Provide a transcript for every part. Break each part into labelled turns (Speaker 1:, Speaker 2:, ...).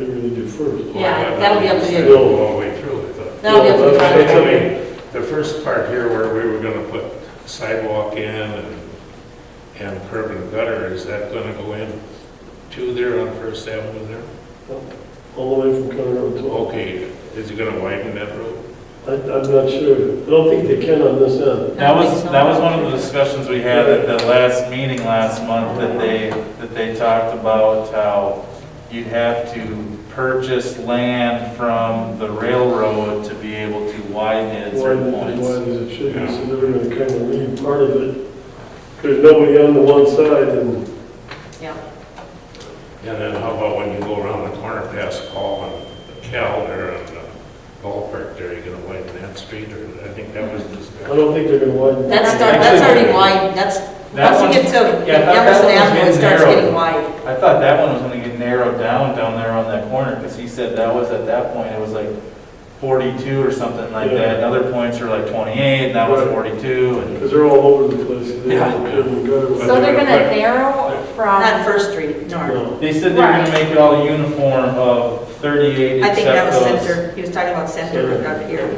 Speaker 1: do first.
Speaker 2: Yeah, that'll be up to you.
Speaker 3: Still a long way through, I thought.
Speaker 2: That'll be up to the
Speaker 3: But it's, I
Speaker 2: contractor.
Speaker 3: mean, the first part here where we were gonna put sidewalk in and, and curb and gutter, is that gonna go in to there on First Avenue there?
Speaker 1: All the way from County Road 12.
Speaker 3: Okay, is it gonna widen that road?
Speaker 1: I, I'm not sure. I don't think they can on this end.
Speaker 4: That was, that was one of the discussions we had at the last meeting last month, that they, that they talked about how you'd have to purchase land from the railroad to be able to widen it at
Speaker 1: Wide,
Speaker 4: certain
Speaker 1: as wide
Speaker 4: points.
Speaker 1: as it should be, so they're gonna kind of leave part of it. There's nobody on the one side and,
Speaker 2: Yeah,
Speaker 3: And then how about when you go around the corner past Paul and Cal there and the ballpark there, you gonna widen that street or, I think that was
Speaker 1: I
Speaker 3: discussed.
Speaker 1: don't think they're gonna widen.
Speaker 2: that's, start- that's already
Speaker 4: Actually-
Speaker 2: wide, that's,
Speaker 4: That
Speaker 2: once you
Speaker 4: one-
Speaker 2: get to
Speaker 4: yeah, that- that
Speaker 2: Emerson
Speaker 4: one's
Speaker 2: Avenue, it
Speaker 4: been
Speaker 2: starts
Speaker 4: narrowed.
Speaker 2: getting wide.
Speaker 4: I thought that one was gonna get narrowed down, down there on that corner, because he said that was, at that point, it was like forty-two or something like that, and other points were like twenty-eight, and that was
Speaker 1: Right.
Speaker 4: forty-two, and
Speaker 1: Because they're all over the place. They
Speaker 4: Yeah.
Speaker 1: don't care and gutter.
Speaker 3: But
Speaker 5: So they're
Speaker 3: they're
Speaker 5: gonna
Speaker 3: gonna-
Speaker 5: narrow
Speaker 2: Not
Speaker 5: from,
Speaker 2: First Street, north.
Speaker 1: No.
Speaker 4: they said they were gonna make it all uniform of thirty-eight
Speaker 2: I think that
Speaker 4: except
Speaker 2: was
Speaker 4: those.
Speaker 2: Center, he was talking about Center up here.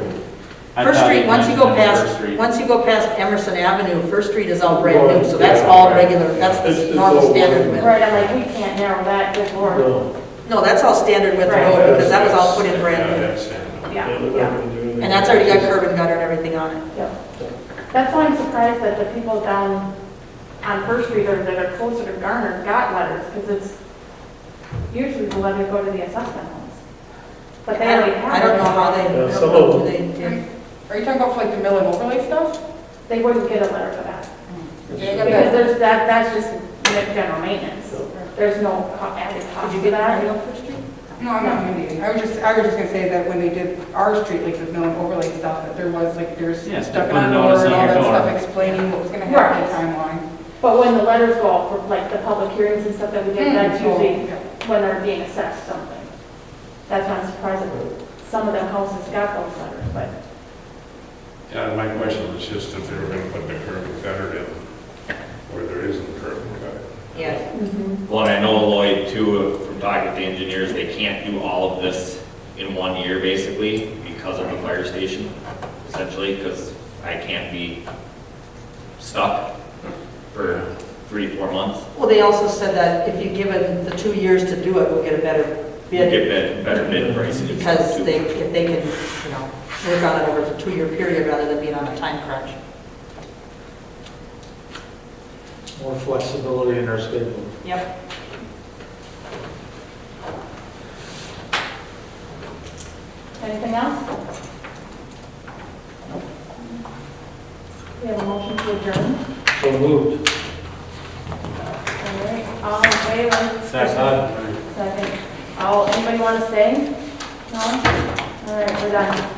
Speaker 4: I
Speaker 2: First
Speaker 4: thought he
Speaker 2: Street, once you go
Speaker 4: mentioned First
Speaker 2: past,
Speaker 4: Street.
Speaker 2: once you go past Emerson Avenue, First Street is all brand new, so that's
Speaker 3: Yeah.
Speaker 2: all regular, that's
Speaker 1: It's-
Speaker 2: the
Speaker 1: it's
Speaker 2: normal
Speaker 1: all
Speaker 2: standard
Speaker 1: brand
Speaker 2: width.
Speaker 5: right, I'm like, we can't narrow that, good lord.
Speaker 1: No.
Speaker 2: No, that's all standard width
Speaker 5: Right.
Speaker 2: road, because that was all put in
Speaker 3: Yeah,
Speaker 2: brand new.
Speaker 3: that's it.
Speaker 5: Yeah,
Speaker 1: they're not
Speaker 5: yeah,
Speaker 1: gonna do anything.
Speaker 2: And that's already got curb and gutter and everything on it.
Speaker 5: yeah. That's why I'm surprised that the people down on First Street or that are closer to Garner got letters, because it's usually the letters go to the assessment homes. But they
Speaker 2: I
Speaker 5: already
Speaker 2: don't,
Speaker 5: have.
Speaker 2: I don't know how they, I
Speaker 1: Yeah,
Speaker 2: don't
Speaker 1: some
Speaker 2: know
Speaker 1: of
Speaker 2: who they did.
Speaker 6: Are you talking about for like the mill and overlay stuff?
Speaker 5: They wouldn't get a letter for that,
Speaker 6: Okay.
Speaker 5: because there's, that, that's just general maintenance. There's no co- added cost
Speaker 2: Did you get
Speaker 5: for
Speaker 2: that?
Speaker 5: that.
Speaker 6: No, I'm not Indian. I was just, I was just gonna say that when they did our street, like the mill and overlay stuff, that there was like, there's
Speaker 4: Yes, they
Speaker 6: stuff
Speaker 4: put a
Speaker 6: on the
Speaker 4: notice
Speaker 6: door and
Speaker 4: on
Speaker 6: all
Speaker 4: your
Speaker 6: that
Speaker 4: door.
Speaker 6: stuff explaining what was gonna happen
Speaker 5: Right.
Speaker 6: timeline.
Speaker 5: But when the letters go out for like the public hearings and stuff that we get, that's
Speaker 6: Hmm.
Speaker 5: usually when they're being assessed something. That's why I'm surprised that some of the houses got those letters, but
Speaker 3: Yeah, my question was just if they were gonna put the curb and gutter in, where there isn't curb and gutter.
Speaker 2: Yeah,
Speaker 7: Well, and I know Lloyd too, uh, from talking to the engineers, they can't do all of this in one year basically because of the fire station, essentially, because I can't be stuck for three, four months.
Speaker 2: well, they also said that if you give it the two years to do it, we'll get a better
Speaker 7: Get
Speaker 2: bid,
Speaker 7: bet- better bid prices.
Speaker 2: because they, if they can, you know, work on it over a two-year period rather than being on a time crunch.
Speaker 8: more flexibility in our schedule.
Speaker 2: Yep.
Speaker 5: anything else? We have a motion to adjourn.
Speaker 8: So moved.
Speaker 5: All right, all in favor?
Speaker 4: Second.
Speaker 5: Second. All, anybody want to stay? No? All right, we're done.